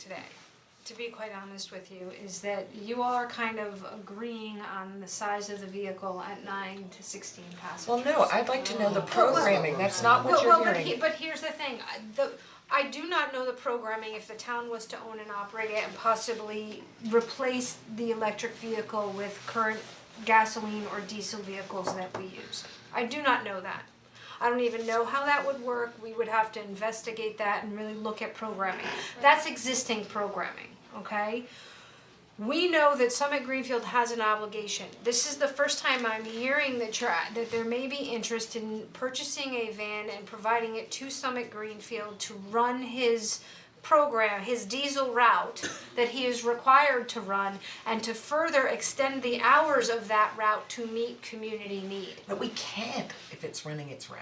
today, to be quite honest with you, is that you all are kind of agreeing on the size of the vehicle at nine to sixteen Well, passengers. no, I'd like to know the programming, that's not what Well, you're well, but he, hearing. but here's the thing, I- the, I do not know the programming if the town was to own and operate it and possibly replace the electric vehicle with current gasoline or diesel vehicles that we use. I do not know that. I don't even know how that would work, we would have to investigate that and really look at programming. That's existing programming, okay? we know that Summit Greenfield has an obligation. This is the first time I'm hearing that you're, that there may be interest in purchasing a van and providing it to Summit Greenfield to run his program, his diesel route that he is required to run and to further extend the hours of that route to meet community need. But we can't if it's running its route.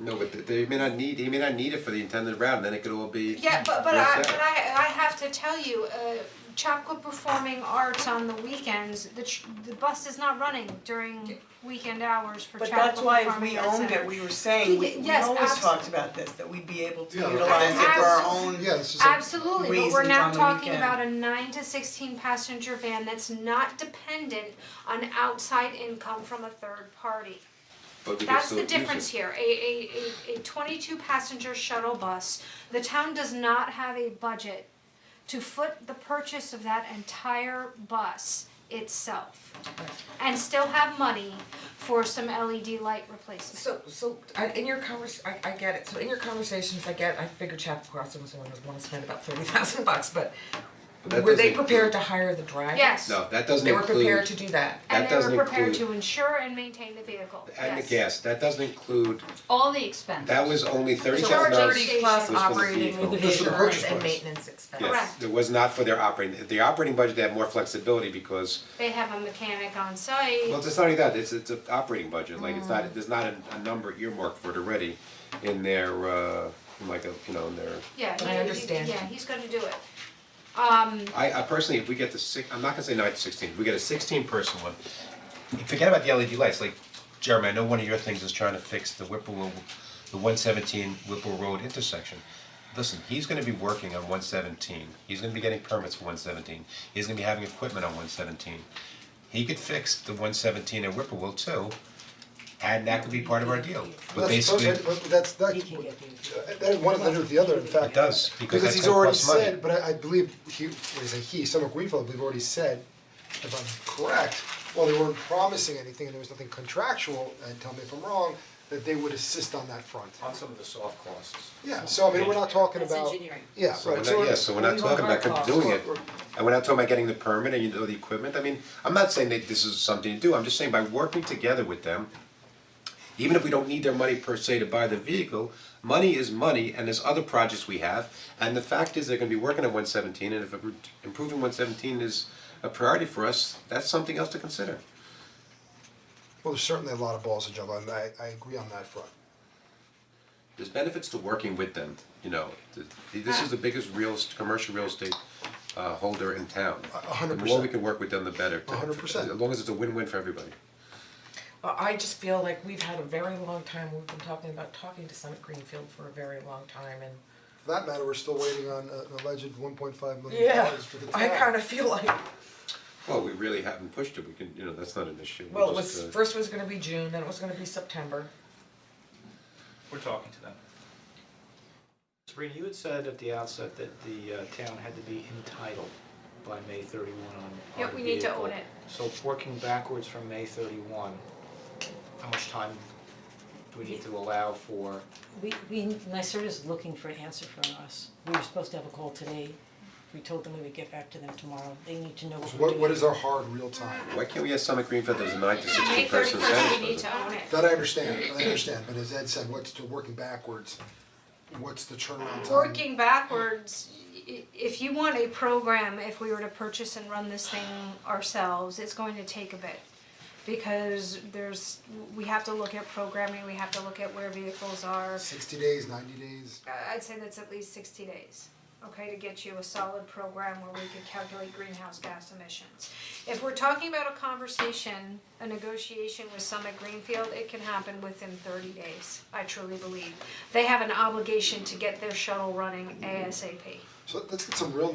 No, but th- they may not need, he may not need it for the intended round, then it could all be. Yeah, but but worked I out. but I I have to tell you, uh Chapco Performing Arts on the weekends, the ch- the bus is not running during weekend hours for But Chapco that's why if Performing we Arts owned Center. it, we were saying, we we Yes, always abs- talked about this, that we'd be able to Yeah, utilize it for our own. Yeah, this is a, Absolutely, but we're reasons now on the talking weekend. about a nine to sixteen passenger van that's not dependent on outside income from a third party. But we could That's still the use it. difference here, a a a a twenty-two passenger shuttle bus, the town does not have a budget to foot the purchase of that entire bus itself. And still have money for some LED light replacement. So, so, I, in your convers, I, I get it, so in your conversations, I get, I figured Chapel Crossing was the one that wanna spend about thirty thousand bucks, but But that were they doesn't prepared include- to hire the driver? Yes, No, that doesn't They were include. prepared to do that. and that they doesn't were prepared include- to insure and maintain the vehicle, yes. And the gas, that doesn't include, all the expenses. that was only thirty So thousand dollars. thirty plus was for the operating vehicle. with Just for the purchase insurance and price. maintenance expense. Yes, Correct. it was not for their operating, the operating budget, they have more flexibility because, They have a mechanic on site. well, it's not only that, it's, it's an operating budget, like, it's Mm. not, there's not a, a number earmarked for it already in their, uh, in like a, you know, in their. Yeah, I he- he- understand. yeah, he's gonna do it. Um, I I personally, if we get the six, I'm not gonna say nine to sixteen, if we get a sixteen person one, forget about the LED lights, like Jeremy, I know one of your things is trying to fix the Whipple, the one seventeen Whipple Road intersection. Listen, he's gonna be working on one seventeen, he's gonna be getting permits for one seventeen, he's gonna be having equipment on one seventeen. He could fix the one seventeen at Whipple too, and that could be part of our deal, but that's, basically, okay, it but that's, that's, that one has nothing to do with the other, in fact. does, because Because that's as he's gonna already cost money. said, but I I believe he, what is it, he, Summer Greenfield, I believe already said, if I'm correct, well, they weren't promising anything and there was nothing contractual, and tell me if I'm wrong, that they would assist on that front. on some of the soft costs. Yeah, so I mean, we're not talking about. engineering. Yeah, So we're right, not, so. yeah, so we're not talking about com- doing it, and we're not talking about getting the permit and you know the equipment, I mean, I'm not saying that this is something to do, I'm just saying by working together with them, even if we don't need their money per se to buy the vehicle, money is money, and there's other projects we have, and the fact is they're gonna be working on one seventeen, and if improving one seventeen is a priority for us, that's something else to consider. Well, there's certainly a lot of balls to juggle, and I, I agree on that front. There's benefits to working with them, you know, Th- this is the biggest real, est- commercial real estate uh holder in town. a hundred The more we percent. can work with them, the better. A hundred percent. As long as it's a win-win for everybody. Well, I just feel like we've had a very long time, we've been talking about talking to Summit Greenfield for a very long time and For that matter, we're still waiting on uh, an alleged one point five million Yeah, dollars for the town. I kinda feel like, Well, we really haven't pushed it, we can, you know, that's not an issue, well, it we was, just, uh, first was gonna be June, then it was gonna be September. We're talking to them. Sabrina, you had said at the outset that the uh, town had to be entitled by May thirty-one on on the Yep, we need to vehicle. own it. So working backwards from May thirty-one, how much time do we need to allow for? We, we, NYSERDA's looking for an answer from us. We were supposed to have a call today. We told them we would get back to them tomorrow. They need to know what So we're What, doing. what is our hard real time? why can't we ask Summit Greenfield, there's a nine to May sixteen person thirty-first, sentence, we need to own it. That I understand, I understand, but as Ed said, what's to working backwards, what's the turnaround time? Working backwards, i- if you want a program, if we were to purchase and run this thing ourselves, it's going to take a bit. Because there's, we have to look at programming, we have to look at where vehicles are. Sixty days, ninety days, I- I'd say that's at least sixty days, okay, to get you a solid program where we could calculate greenhouse gas emissions. If we're talking about a conversation, a negotiation with Summit Greenfield, it can happen within thirty days, I truly believe. They have an obligation to get their shuttle running ASAP. so let's get some real